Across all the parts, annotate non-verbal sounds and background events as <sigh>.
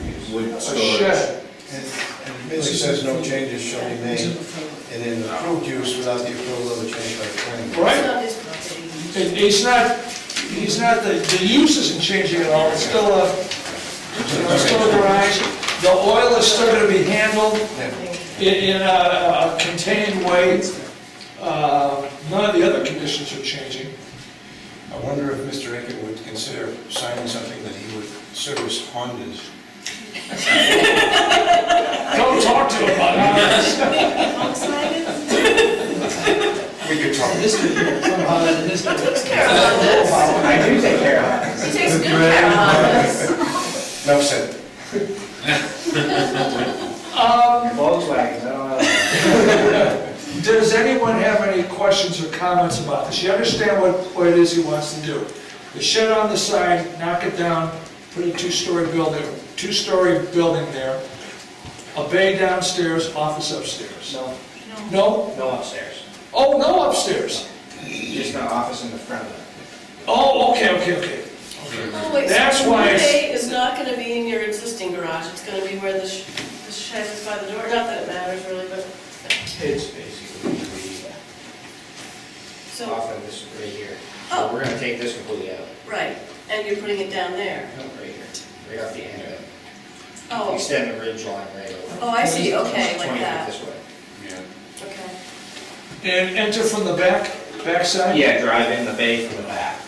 absolute a storage. shed, and and it says no changes shall be made, and then approved use without the approval of a change by the planning board. It's right? not his property. It- It's not, it's not, the, the use isn't changing at all, it's still a, you know, it's still a garage. The oil is still gonna be handled in, in a a contained way. Uh, None of the other conditions are changing. I wonder if Mr. Akin would consider signing something that he would service Hondas. Don't talk to him about it. Honks like it? We could talk. I do take care of it. He takes good care of us. Enough said. Um, Volkswagens, I don't know. Does anyone have any questions or comments about this? You understand what, what it is he wants to do? The shed on the side, knock it down, put a two-story building, two-story building there, a bay downstairs, office upstairs. No, No? no upstairs, Oh, no upstairs. just an office in the front of it. Oh, okay, okay, okay. Oh, wait, so That's why the it's- bay is not gonna be in your existing garage, it's gonna be where the sh- the shed is by the door, not that it matters really, but, It's basically the so, office right here. Oh. So we're gonna take this completely out, right, and you're putting it down there. No, right here, right off the end of it. Oh, Extend the ridge line right over. Oh, I see, okay, like 20 feet that. this way. okay. And enter from the back, backside? Yeah, drive in the bay from the back.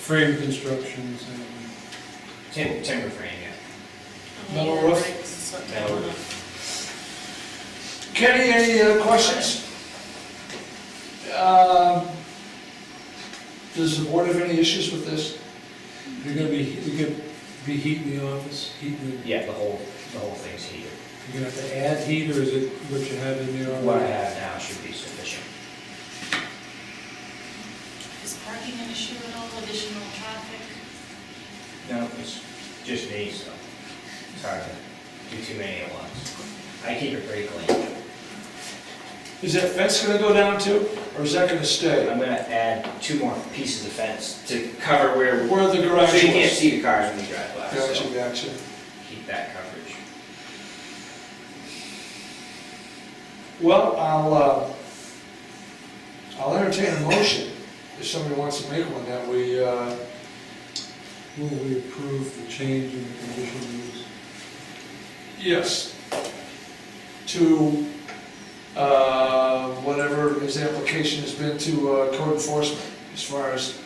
frame constructions and... Tim- Timber frame, yeah. Metal roof? Right, 'cause it's not Metal roof. Kenny, any uh, questions? Um, Does the board have any issues with this? You're gonna be, you're gonna be heating the office, heating the, Yeah, the whole, the whole thing's heated. you're gonna have to add heat, or is it what you have in there What I already? have now should be sufficient. Is parking an issue at all, additional traffic? No, it's just me, so it's hard to do too many at once. I keep it pretty clean. Is that fence gonna go down too, or is that gonna stay? I'm gonna add two more pieces of fence to cover where, Where the garage so you can't was? see the cars when you drive by, Gotcha, so gotcha. keep that coverage. Well, I'll, uh, I'll entertain a motion, if somebody wants to make one, that we, uh, Will we approve the change in the conditional use? yes, to, uh, whatever his application has been to uh, code enforcement, as far as,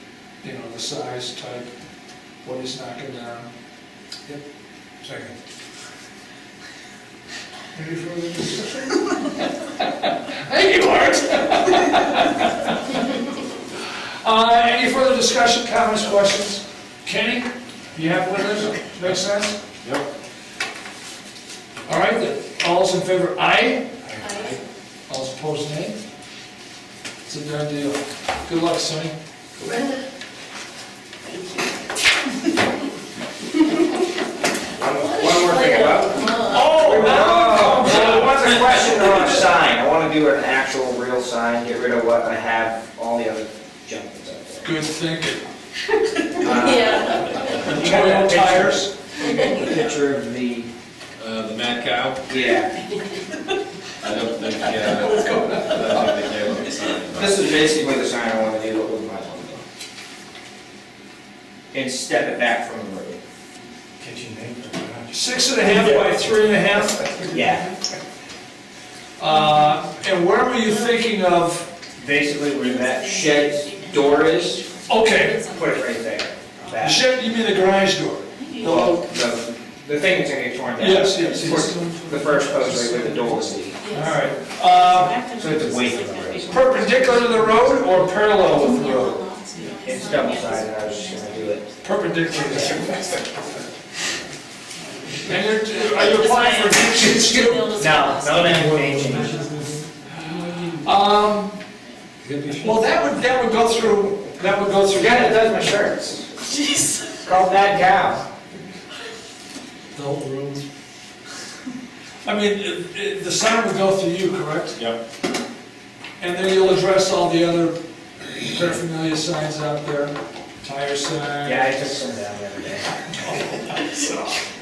you know, the size, type, what he's knocking down. Second. Any further discussion? Thank you, Art. Uh, any further discussion, comments, questions? Kenny, you happy with this? Make sense? Yep. All right, then, all's in favor, aye? Aye. All's opposed, nay? It's a done deal. Good luck, Sonny. One one more thing about, Oh, so what's the question on a <laughs> sign? I wanna do an actual real sign, get rid of what I have, all the other junk that's Um, out there. Good thinking. Yeah, You got Toil that picture? tires. You got the Picture of the, Uh, the mad cow, yeah, I don't think, uh, I don't think they have a sign. but- this is basically the sign I wanna do with my logo. And step it back from the road. Kitchen name, garage. Six and a half by three and a half. Yeah. Uh, and where were you thinking of, Basically where that shed door is, okay, put it right there. the That- shed, you mean the garage door? Well, the, the thing that's gonna get torn down. Yes, yes, Put yes. The first post right where the door is. All right. Uh, So it's away from the road. Perpendicular to the road or parallel with the road? It's double sided, I was just gonna do it. Perpendicular. <laughs> And you're, uh, are you applying for variance too? No, no, that may change. Um, Condition- well, that would, that would go through, that would go through. Forget it, does my shirts. jeez. It's called Mad Cow. The whole room? I mean, it- it- the sign would go through you, correct? Yep. And then you'll address all the other paraphernalia signs out there, tire sign. Yeah, I took some down the other day.